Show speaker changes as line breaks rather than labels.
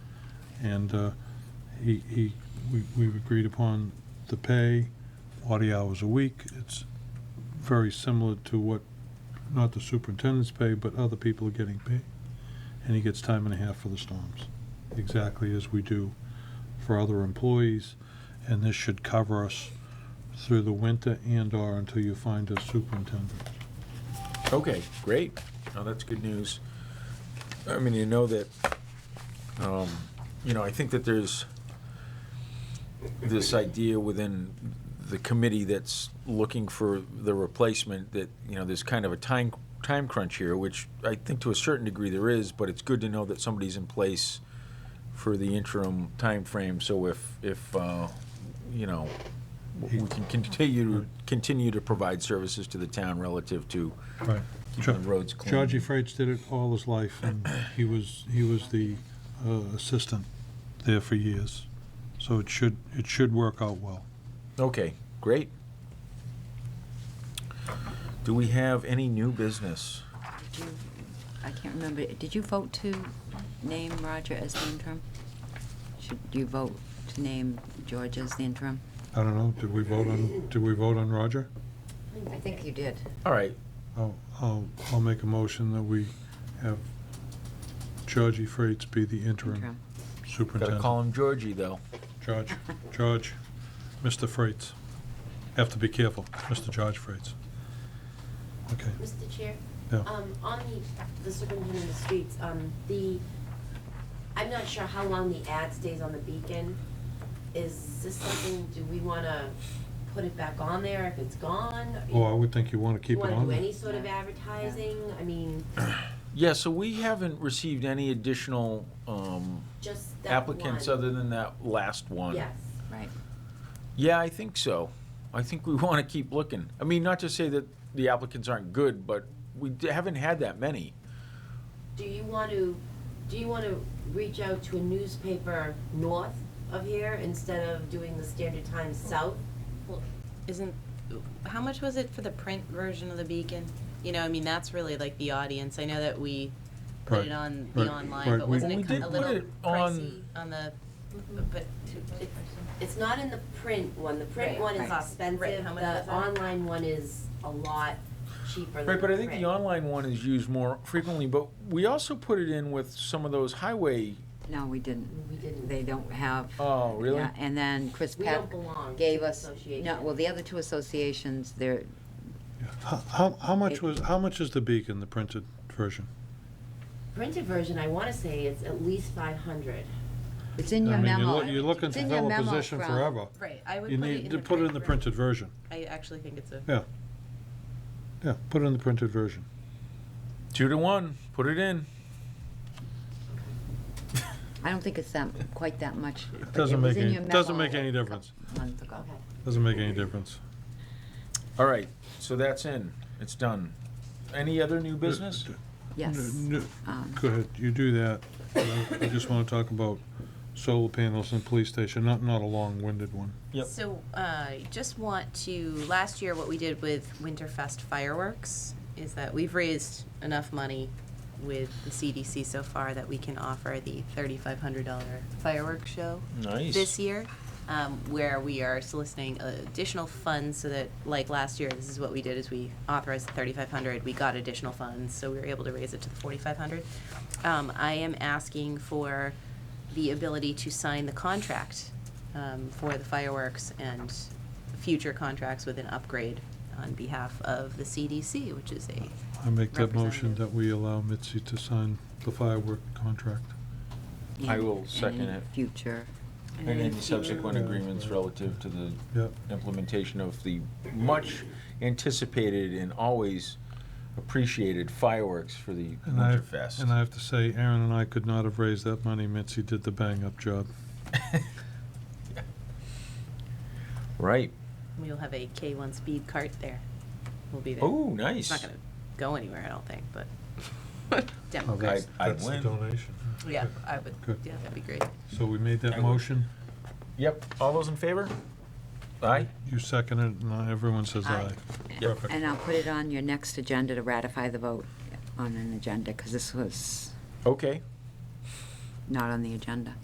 and uh, he, he, we- we've agreed upon the pay, forty hours a week. It's very similar to what, not the superintendent's pay, but other people are getting paid. And he gets time and a half for the storms, exactly as we do for other employees. And this should cover us through the winter and/or until you find a superintendent.
Okay, great. Now, that's good news. I mean, you know that, um, you know, I think that there's this idea within the committee that's looking for the replacement that, you know, there's kind of a time, time crunch here, which I think to a certain degree there is, but it's good to know that somebody's in place for the interim timeframe, so if, if, uh, you know, we can continue, continue to provide services to the town relative to
Right.
keeping the roads clean.
Georgie Freitz did it all his life, and he was, he was the uh, assistant there for years. So it should, it should work out well.
Okay, great. Do we have any new business?
Did you- I can't remember, did you vote to name Roger as the interim? Should you vote to name George as the interim?
I don't know, did we vote on, did we vote on Roger?
I think you did.
All right,
I'll, I'll, I'll make a motion that we have Georgie Freitz be the interim
Interim.
gotta
superintendent.
call him Georgie, though.
George, George, Mr. Freitz. Have to be careful, Mr. George Freitz. Okay,
Mr. Chair?
Yeah.
Um, on the, the superintendent of the streets, um, the, I'm not sure how long the ad stays on the beacon. Is this something, do we wanna put it back on there if it's gone?
well, I would think you want to
Do you
keep it
wanna
on.
do
there.
any sort of advertising? I mean,
Yeah, so we haven't received any additional um,
just that one.
applicants other than that last one.
Yes.
Right.
Yeah, I think so. I think we want to keep looking. I mean, not to say that the applicants aren't good, but we d- haven't had that many.
Do you want to, do you want to reach out to a newspaper north of here instead of doing the Standard Times south?
Isn't, how much was it for the print version of the Beacon? You know, I mean, that's really like the audience. I know that we put it
Right,
on the
right,
online,
right,
but
we-
wasn't
We
it ki-
did
a
put
little
it on-
pricey on the, but.
It's not in the print one, the print
Right.
one is
Right.
Right,
expensive,
how much was
the
that?
online one is a lot cheaper than
Right, but I think
print.
the online one is used more frequently, but we also put it in with some of those highway,
No, we didn't.
We didn't.
They don't have.
oh, really?
Yeah, And then Chris
We don't
Peck
belong to
gave
the
us,
association.
no, well, the other two associations, they're,
How- How, how much
It-
was, how much is the Beacon, the printed version?
Printed version, I wanna say it's at least five hundred.
it's in your
I mean, you're
memo.
loo- You're looking
It's
to
in your
fill a
memo
position
from-
forever.
Right, I would
You
put it
need
in
to
the.
put it in the
print
printed version.
ver- I actually think it's a.
Yeah. Yeah, put it in the printed version.
Two to one, put it in.
I don't think it's that, quite that much. but
It doesn't
was
make
in
any,
your
doesn't
memo
make any
a
difference.
couple months ago.
Okay.
Doesn't make any difference.
All right, so that's in, it's done. Any other new business?
Yes.
N- n-
Um,
Go ahead, you do that. but I I just want to talk about solar panels in police station, not, not a long-winded one.
Yep.
So, uh, just want to, last year, what we did with Winterfest fireworks is that we've raised enough money with the CDC so far that we can offer the thirty-five hundred dollar fireworks show.
Nice.
This year, um, where we are soliciting additional funds so that, like last year, this is what we did, is we authorized the thirty-five hundred, we got additional funds, so we were able to raise it to the forty-five hundred. Um, I am asking for the ability to sign the contract, um, for the fireworks and future contracts with an upgrade on behalf of the CDC, which is a
I make that motion
Representative.
that we allow Mitzi to sign the firework contract.
I
and-
will
and
second
any
it.
Future.
And any subsequent
Yeah.
agreements relative to the
Yep.
implementation of the much anticipated and always appreciated fireworks for the
And I-
Winterfest.
And I have to say, Aaron and I could not have raised that money. Mitzi did the bang-up job.
Right.
We'll have a K1 speed cart there. We'll be there.
Oh, nice.
It's not going to go anywhere, I don't think, but demo.
Oh, that's-
I- I
That's the
win.
donation.
Yeah, I would,
Good.
yeah, that'd be great.
So we made
I
that
would-
motion,
Yep, all those in favor? Aye.
you seconded it, and uh, everyone says aye.
Aye.
Perfect.
And I'll put it on your next agenda to ratify the vote on an agenda, because this was
Okay.
not on the agenda.